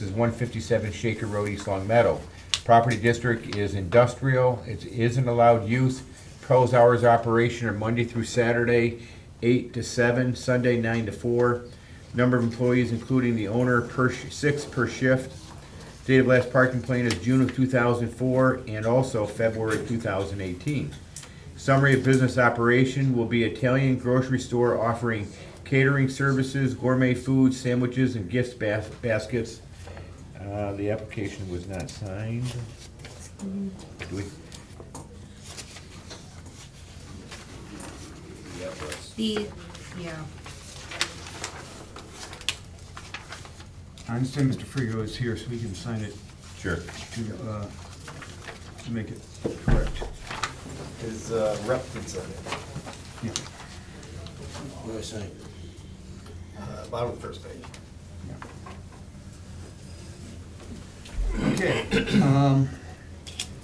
This is one fifty-seven Shaker Road, East Long Meadow. Property district is industrial, it isn't allowed use. Pro's hours of operation are Monday through Saturday, eight to seven, Sunday nine to four. Number of employees, including the owner, per, sh- six per shift. Date of last parking plan is June of two thousand four and also February two thousand eighteen. Summary of business operation will be Italian grocery store offering catering services, gourmet food, sandwiches, and gift bas- baskets. Uh, the application was not signed. Do we- The, yeah, I understand Mr. Frigo is here, so we can sign it Sure. to, uh, to make it correct. His uh, rep did sign it, Yeah, What do I say? uh, bottom of the first page. yeah. Okay, um,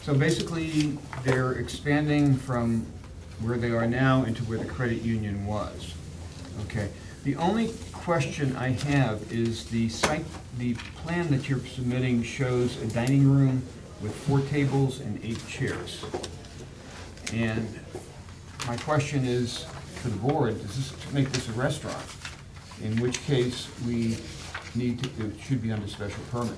so basically, they're expanding from where they are now into where the credit union was. Okay, the only question I have is the site, the plan that you're submitting shows a dining room with four tables and eight chairs. And my question is to the board, does this make this a restaurant? In which case, we need to, it should be under special permit.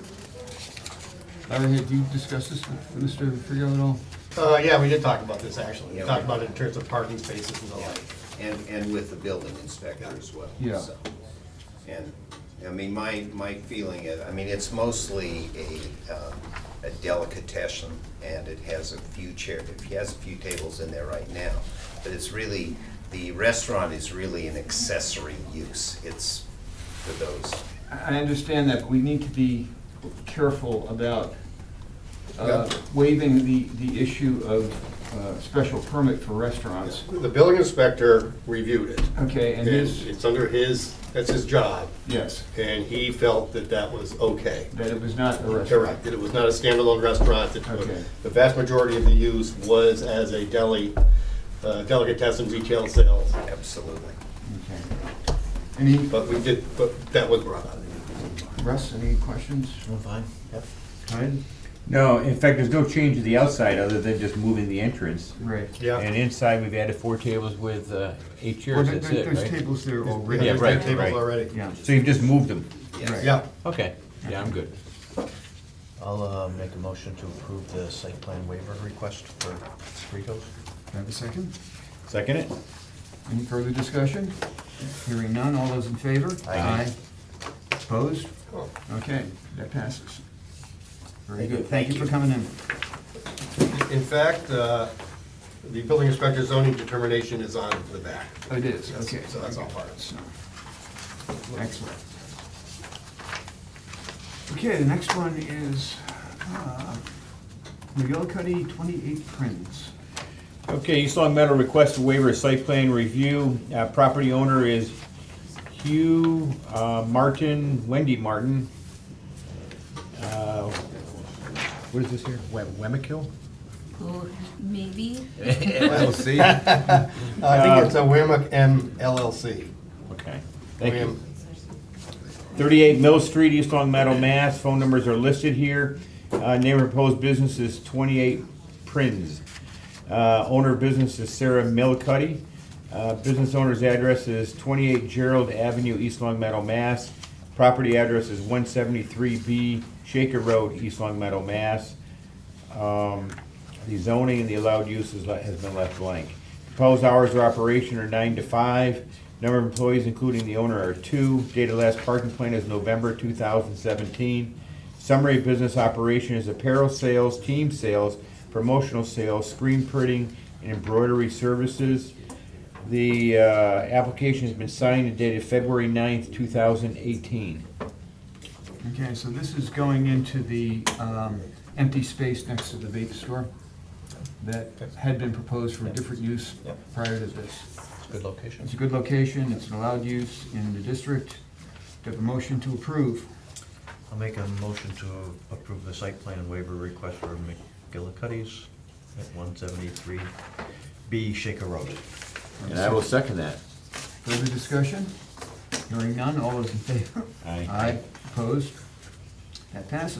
Larry, have you discussed this with Mr. Frigo at all? Uh, yeah, we did talk about this, actually. We Yeah, talked we- about it in terms of parking spaces and the like. And, and with the building inspector as well. Yeah. so. And, I mean, my, my feeling is, I mean, it's mostly a, um, a delicatessen, and it has a few chair, it has a few tables in there right now. But it's really, the restaurant is really an accessory use. It's for those. I I understand that, but we need to be careful about uh, Yeah. waiving the, the issue of uh, special permit for restaurants. The building inspector reviewed it. Okay, and And his, it's under his, that's his job, yes, and he felt that that was okay. that it was not a restaurant. Correct, that it was not a standalone restaurant, that Okay. the vast majority of the use was as a deli, uh, delicatessen retail sales. Absolutely. Okay. Any, But we did, but that was brought up. Russ, any questions? fine. Hyde? No, in fact, there's no change to the outside other than just moving the entrance. Right. And inside, we've added four tables with uh, eight Well, chairs, there- that's it, there- There's right? tables there Yeah, already. Yeah, there's right, tables right. already. Yeah. So you've just moved them. Right. Yeah. Okay, yeah, I'm good. I'll uh, make a motion to approve the site plan waiver request for Fritos. Can I have a second? Second it? Any further discussion? Hearing none, all those in favor? Aye. Opposed? Cool. Okay, that passes. Very Thank you. good, thank you for coming in. In fact, uh, the building inspector's zoning determination is on the back. Oh, It is, okay. So that's all part of it. So, Excellent. Okay, the next one is uh, Miguel Cuddy, 28 Prince. Okay, East Long Meadow requests a waiver of site plan review. Uh, Property owner is Hugh uh, Martin, Wendy Martin. Uh, What is this here? We- Wemmikill? oh, maybe, LLC? I think it's a Wamick M LLC. Okay, thank you. Wham- 38 Mill Street, East Long Meadow, Mass. Phone numbers are listed here. Uh, Name of proposed business is 28 Prinz. Uh, Owner of business is Sarah Milcuddy. Uh, Business owner's address is 28 Gerald Avenue, East Long Meadow, Mass. Property address is 173B Shaker Road, East Long Meadow, Mass. Um, The zoning and the allowed use is le- has been left blank. Proposed hours of operation are nine to five. Number of employees, including the owner, are two. Date of last parking plan is November two thousand seventeen. Summary of business operation is apparel sales, team sales, promotional sales, screen printing, and embroidery services. The uh, application has been signed and dated February 9th, two thousand eighteen. Okay, so this is going into the um, empty space next to the vape store that had been proposed for a different use Yep. prior to this. It's a good location. It's a good location, it's an allowed use in the district. Do I have a motion to approve? I'll make a motion to approve the site plan waiver request for McGillicuddy's at 173B Shaker Road. And I will second that. Further discussion? Hearing none, all those in favor? Aye. Aye, opposed? That passes.